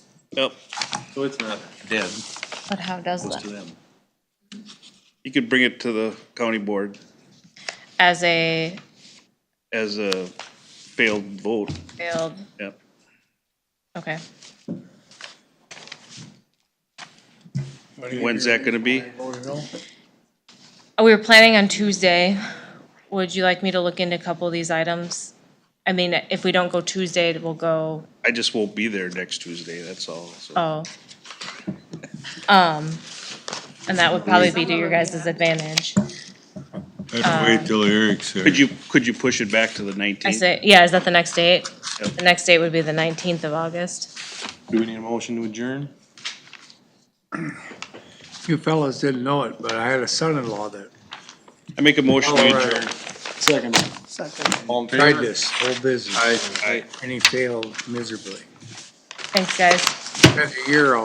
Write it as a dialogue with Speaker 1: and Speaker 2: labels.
Speaker 1: Yep,
Speaker 2: So it's not dead,
Speaker 3: But how does
Speaker 2: close to
Speaker 3: that?
Speaker 2: them.
Speaker 1: you could bring it to the county board
Speaker 3: As a
Speaker 1: as a failed vote,
Speaker 3: failed,
Speaker 1: yep.
Speaker 3: okay.
Speaker 1: When's that gonna be?
Speaker 3: Uh, We were planning on Tuesday. Would you like me to look into a couple of these items? I mean, if we don't go Tuesday, we'll go,
Speaker 1: I just won't be there next Tuesday, that's all, so.
Speaker 3: oh. Um, and that would probably be to your guys' advantage.
Speaker 4: Let's wait till Eric's here.
Speaker 1: Could you, could you push it back to the
Speaker 3: I
Speaker 1: nineteenth?
Speaker 3: say, yeah, is that the next date?
Speaker 1: Yep.
Speaker 3: The next date would be the nineteenth of August.
Speaker 2: Do we need a motion to adjourn?
Speaker 5: You fellas didn't know it, but I had a son-in-law that
Speaker 1: I make a motion to
Speaker 5: Colorado.
Speaker 1: adjourn.
Speaker 2: Second. All in favor?
Speaker 5: tried this whole business,
Speaker 2: Aye.
Speaker 5: and he failed miserably.
Speaker 3: Thanks, guys.
Speaker 5: Spent a year